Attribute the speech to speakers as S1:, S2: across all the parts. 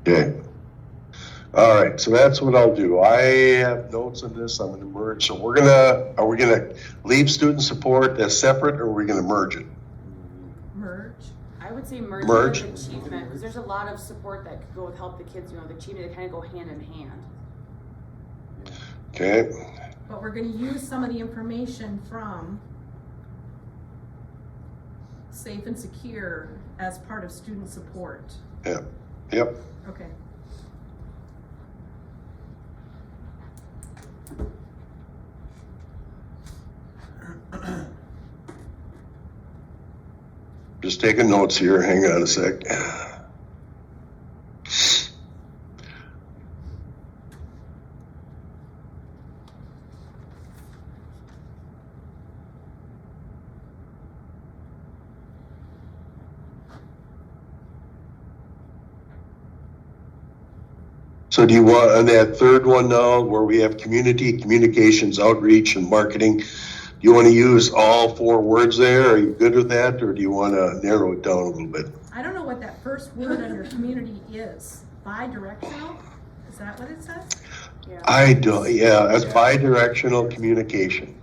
S1: Okay. All right, so that's what I'll do. I have notes on this, I'm gonna merge, so we're gonna, are we gonna leave student support as separate, or are we gonna merge it?
S2: merge.
S3: I would say merge,
S1: Merge.
S3: with achievement because there's a lot of support that could go with help the kids. You know, the achievement they kind of go hand in hand.
S1: Okay,
S2: But we're gonna use some of the information from safe and secure as part of student support.
S1: yep, yep,
S2: Okay,
S1: just taking notes here, hang on a sec. So do you want, on that third one now, where we have community, communications, outreach, and marketing, do you want to use all four words there? Are you good with that, or do you want to narrow it down a little bit?
S2: I don't know what that first word under community is, bi-directional, is that what it says?
S3: Yeah.
S1: I don't, yeah, that's bi-directional communication.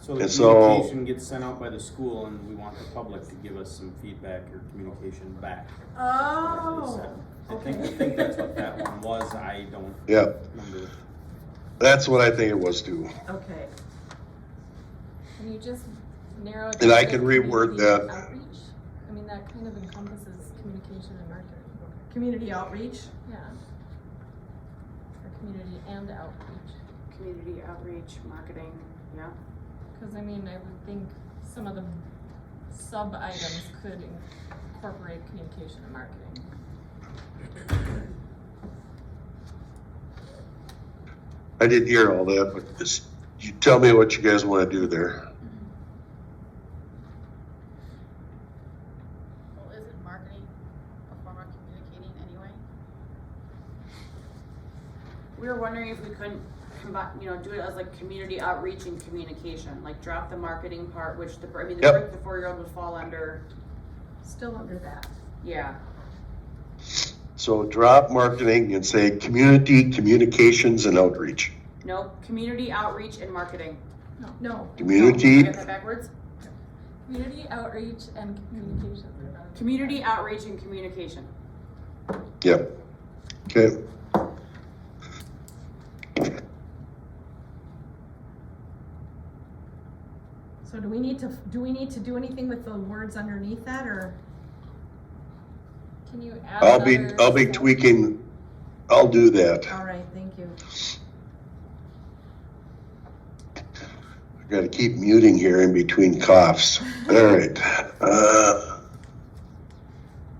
S4: So the
S1: And so-
S4: communication gets sent out by the school and we want the public to give us some feedback or communication back.
S2: Oh,
S4: I think, I
S2: okay.
S4: think that's what that one was, I don't
S1: Yeah,
S4: remember.
S1: that's what I think it was too.
S2: okay,
S5: Can you just narrow it?
S1: And
S5: down
S1: I
S5: to
S1: can reword
S5: community
S1: that.
S5: outreach? I mean, that kind of encompasses communication and marketing,
S2: community outreach,
S5: yeah. Or community and outreach,
S3: Community outreach, marketing. Yeah.
S5: cause I mean, I would think some of the sub-items could incorporate communication and marketing.
S1: I didn't hear all that, but just, you tell me what you guys want to do there.
S6: Well, isn't marketing a form of communicating anyway?
S3: We were wondering if we couldn't combine, you know, do it as like community outreach and communication, like drop the marketing part, which the I mean, the,
S1: Yep.
S3: brick, the four-year-old would fall under.
S2: still under that,
S3: Yeah.
S1: So drop marketing and say community, communications, and outreach.
S3: Nope. Community outreach and marketing.
S2: no,
S3: No,
S1: Community,
S3: I got that backwards.
S5: Community outreach and communication.
S3: Community outreach and communication.
S1: yep. Okay,
S2: so do we need to, do we need to do anything with the words underneath that, or?
S5: Can you add
S1: I'll be,
S5: another
S1: I'll be
S5: sub-
S1: tweaking, I'll do that.
S2: All right, thank you.
S1: I gotta keep muting here in between coughs. All right. uh,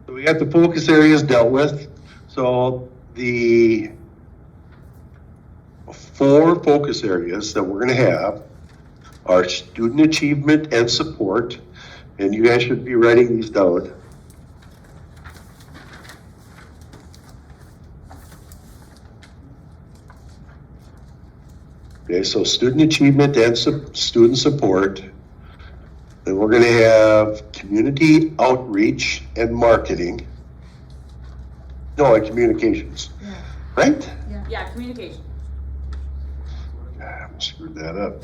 S1: So we got the focus areas dealt with. So the four focus areas that we're gonna have are student achievement and support. And you guys should be writing these down. Okay, so student achievement and su- student support. Then we're gonna have community outreach and marketing. No, and communications,
S2: Yeah,
S1: right?
S3: Yeah, communication.
S1: Ah, Screwed that up.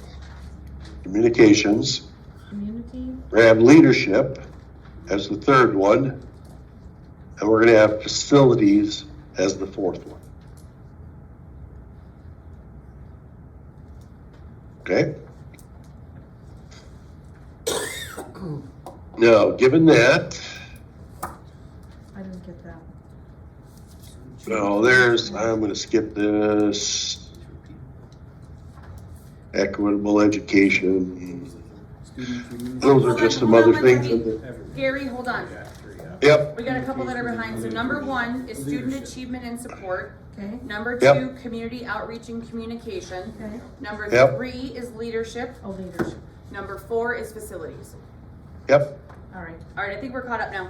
S1: Communications,
S2: community,
S1: we're gonna have leadership as the third one. And we're gonna have facilities as the fourth one. Okay? Now, given that,
S2: I didn't get that.
S1: no, there's, I'm gonna skip this. Equitable education,
S4: Student community.
S1: those are just some other things. in the-
S4: Everything.
S3: Gary, hold on.
S4: Yeah, sure, yeah.
S1: Yep,
S3: We got a couple that are behind. So number one is student
S4: Leadership.
S3: achievement and support.
S2: Okay,
S3: Number
S1: Yep.
S3: two, community outreach and communication.
S2: okay,
S3: Number
S1: Yep.
S3: three is leadership.
S2: oh, leadership,
S3: Number four is facilities.
S1: yep,
S2: all right,
S3: All right, I think we're caught up now.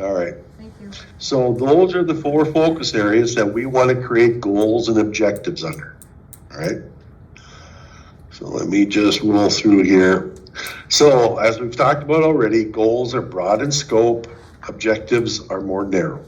S1: all right.
S2: thank you.
S1: So those are the four focus areas that we want to create goals and objectives under, all right? So let me just roll through here. So as we've talked about already, goals are broad in scope, objectives are more narrow.